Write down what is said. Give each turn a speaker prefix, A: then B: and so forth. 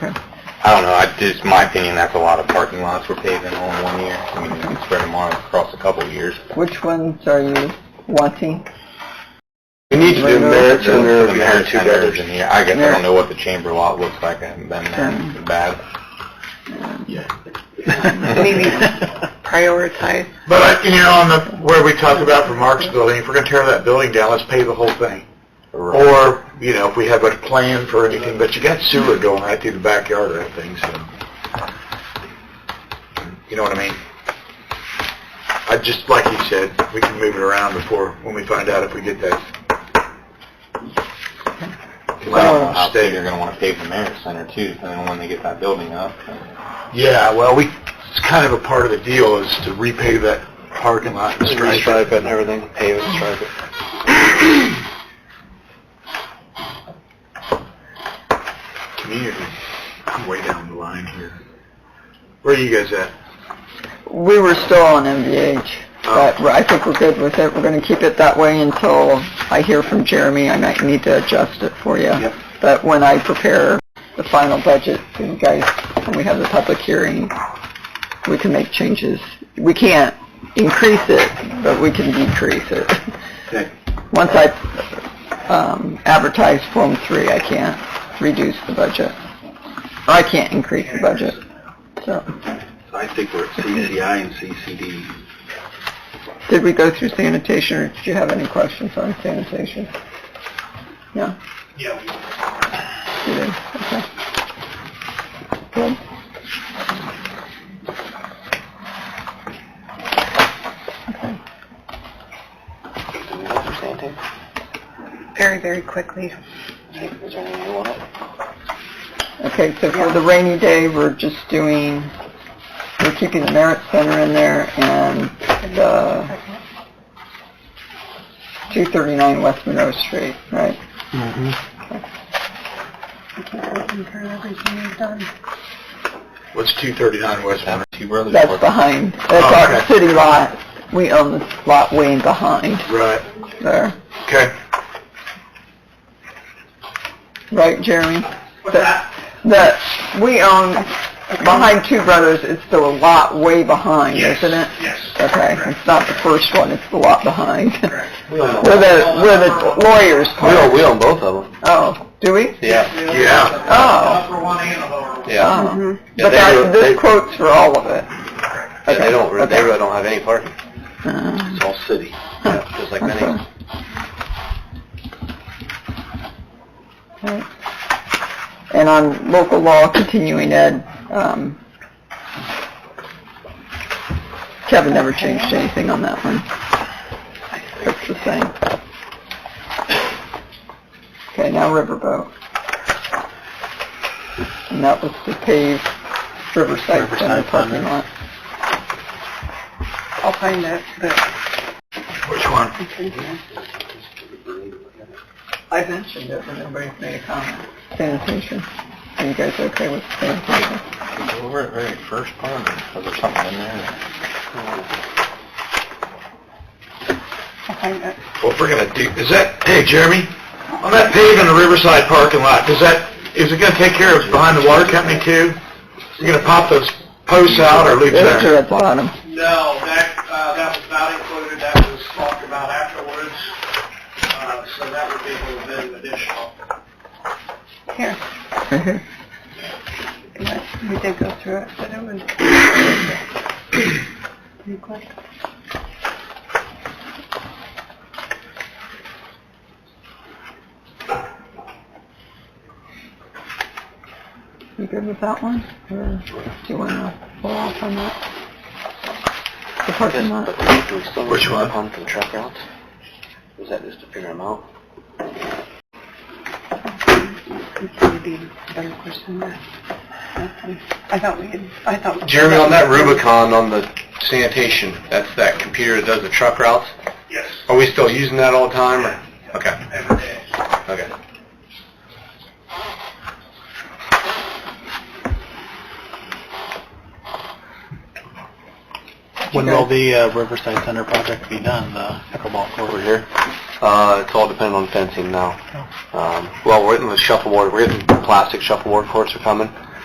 A: I don't know, I, just my opinion, that's a lot of parking lots we're paving all in one year. I mean, you can spread them out across a couple of years.
B: Which ones are you wanting?
A: We need to do
B: Right now,
A: merit
B: it's
A: center,
C: under
A: the
C: the
A: merit
C: two
A: centers
C: brothers.
A: in here. I guess I
B: Merit.
A: don't know what the chamber lot looks like, I haven't been there,
B: Sure.
A: It's bad.
B: Maybe prioritize.
C: But, I- you know, on the, where we talked about for Mark's building, if we're gonna tear that building down, let's pay the whole thing.
A: Right.
C: Or, you know, if we have a plan for anything, but you got sewer going right through the backyard of that thing, so. You know what I mean? I just, like you said, we can move it around before, when we find out if we get that.
A: I don't know how
C: Stay.
A: big you're gonna wanna pave the merit center too, depending on when they get that building up.
C: Yeah, well, we, it's kind of a part of the deal is to repave that parking lot and stripe it.
A: and everything, pave it, stripe it.
C: Community, way down the line here. Where are you guys at?
B: We were still on MVH,
C: Oh.
B: but I think we're good with it. We're going to keep it that way until I hear from Jeremy. I might need to adjust it for you.
C: Yep.
B: But when I prepare the final budget, for you guys, when we have the public hearing, we can make changes. We can't increase it, but we can decrease it.
C: Okay.
B: Once I um, advertise Form 3, I can't reduce the budget. I can't increase the budget, so.
C: I think we're at CCI and CCD.
B: Did we go through sanitation, or did you have any questions on sanitation? No? Yeah. You did, okay. Good.
D: very, very quickly.
B: Okay, so for the rainy day, we're just doing, we're keeping the merit center in there and the 239 West Monroe Street, right?
D: I keep looking for everything you've done.
C: What's 239 West Monroe?
A: Have two brothers.
B: That's
A: working.
B: behind,
C: Oh,
B: that's our
C: okay.
B: city lot. We own the lot way behind
C: Right,
B: there.
C: okay.
B: Right, Jeremy? The, we own, behind Two Brothers, it's still a lot way behind, isn't it?
C: Yes.
B: Okay, it's not the first one, it's the lot behind. Where
C: We don't
B: the, where the lawyers park.
A: own both of them.
B: Oh, do we?
A: Yeah,
C: Yeah,
B: Oh,
A: yeah.
B: oh.
A: Yeah,
B: But
A: they wrote-
B: that,
A: they-
B: this quote's for all of it.
A: Yeah, they don't,
B: Okay.
A: they really don't have any parking.
B: Uh,
A: It's all city, yeah, just like many.
B: okay. Right. And on local law continuing ed, um, Kevin never changed anything on that one. It's the same. Okay, now riverboat. And that was to pave Riverside Center
C: Riverside
B: parking
C: Center.
B: lot.
D: I'll find it, but
C: which one?
D: I think, yeah.
B: I mentioned it, but nobody's made a comment. Sanitation. Are you guys okay with sanitation?
A: We were at very first part, was there something in there?
D: I'll find it.
C: What we're gonna do, is that, hey Jeremy, on that paving the Riverside parking lot, does that, is it gonna take care of behind the water company too? You're gonna pop those posts out or leave
B: Those
C: them?
B: are at the bottom.
E: No, that, uh, that was not included, that was talked about afterwards, uh, so that would be a little bit additional.
D: Here,
B: Right here.
D: But we did go through it, but it was... Any questions?
B: You good with that one? Or do you want to pull off on that? The parking lot?
C: Which one?
A: Pump and truck routes? Was that just to figure them out?
D: It's gonna be a better question than that. Okay. I thought we had, I thought...
A: Jeremy, on that Rubicon on the sanitation, that's that computer that does the truck routes,
E: Yes,
A: are we still using that all the time, or? Okay,
E: every day.
A: okay.
F: When will the uh, Riverside Center project be done, the pickleball court?
A: Over here? Uh, it's all
F: Oh.
A: dependent on fencing now. Um, well, we're getting the shuffleboard, we're getting plastic shuffleboard courts are coming,